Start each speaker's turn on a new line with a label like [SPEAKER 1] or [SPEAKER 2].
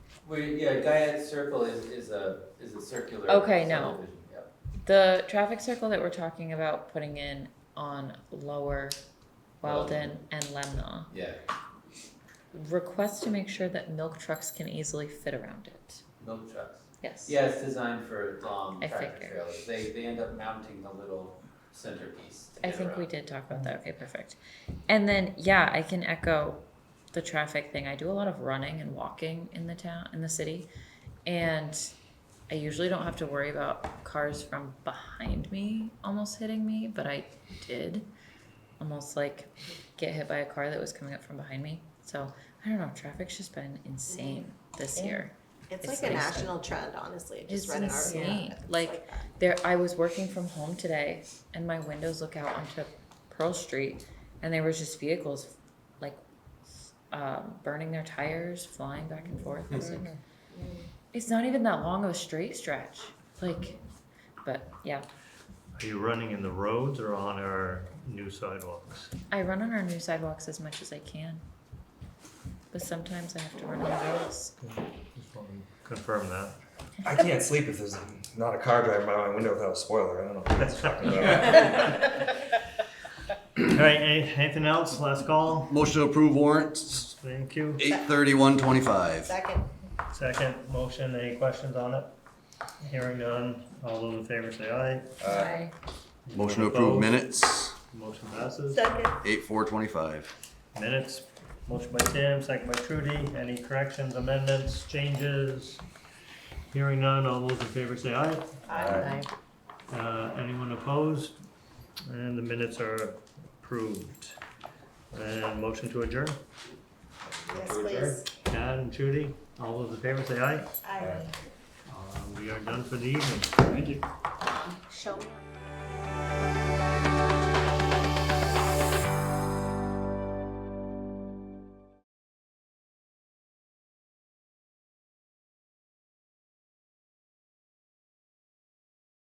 [SPEAKER 1] We, yeah, Diet Circle is, is a, is a circular.
[SPEAKER 2] Okay, no.
[SPEAKER 1] subdivision, yep.
[SPEAKER 2] The traffic circle that we're talking about putting in on Lower Weldon and Lemna
[SPEAKER 1] Yeah,
[SPEAKER 2] requests to make sure that milk trucks can easily fit around it.
[SPEAKER 1] milk trucks.
[SPEAKER 2] Yes.
[SPEAKER 1] Yeah, it's designed for long
[SPEAKER 2] I
[SPEAKER 1] tractor
[SPEAKER 2] figured.
[SPEAKER 1] trailers. They, they end up mounting the little centerpiece to
[SPEAKER 2] I
[SPEAKER 1] get
[SPEAKER 2] think we
[SPEAKER 1] around.
[SPEAKER 2] did talk about that. Okay, perfect. And then yeah, I can echo the traffic thing. I do a lot of running and walking in the town in the city and I usually don't have to worry about cars from behind me almost hitting me, but I did almost like get hit by a car that was coming up from behind me. So, I don't know, traffic's just been insane this
[SPEAKER 3] Yeah.
[SPEAKER 2] year.
[SPEAKER 3] It's
[SPEAKER 2] It's
[SPEAKER 3] like a
[SPEAKER 2] like-
[SPEAKER 3] national trend, honestly. I Just
[SPEAKER 2] It's
[SPEAKER 3] read an
[SPEAKER 2] insane.
[SPEAKER 3] article.
[SPEAKER 2] Like, There, I was working from home today, and my windows look out onto Pearl Street, and there was just vehicles, like, um, burning their tires, flying back and forth. I was like, it's not even that long of a straight stretch, like, but yeah,
[SPEAKER 4] Are you running in the roads or on our new sidewalks?
[SPEAKER 2] I run on our new sidewalks as much as I can, but sometimes I have to run on the roads.
[SPEAKER 4] Just want to confirm that.
[SPEAKER 5] I can't sleep if there's not a car driving by my window without a spoiler. I don't know what that's talking about.
[SPEAKER 4] All right, any- anything else? Last call.
[SPEAKER 6] Motion to approve warrants,
[SPEAKER 4] Thank you.
[SPEAKER 6] eight thirty-one twenty-five.
[SPEAKER 3] Second,
[SPEAKER 4] Second motion, any questions on it? Hearing none, all those in favor say aye.
[SPEAKER 2] I
[SPEAKER 6] Motion to approve
[SPEAKER 4] Opposed?
[SPEAKER 6] minutes,
[SPEAKER 4] Motion passes.
[SPEAKER 3] second.
[SPEAKER 6] eight four twenty-five.
[SPEAKER 4] Minutes, motion by Tim, second by Trudy. Any corrections, amendments, changes? Hearing none, all those in favor say aye.
[SPEAKER 3] Aye.
[SPEAKER 4] Uh, Anyone opposed? And the minutes are approved. And motion to adjourn.
[SPEAKER 3] Yes, please.
[SPEAKER 4] Chad and Trudy, all those in favor say aye.
[SPEAKER 3] Aye.
[SPEAKER 4] Uh, We are done for the evening. Thank you.
[SPEAKER 3] Show me.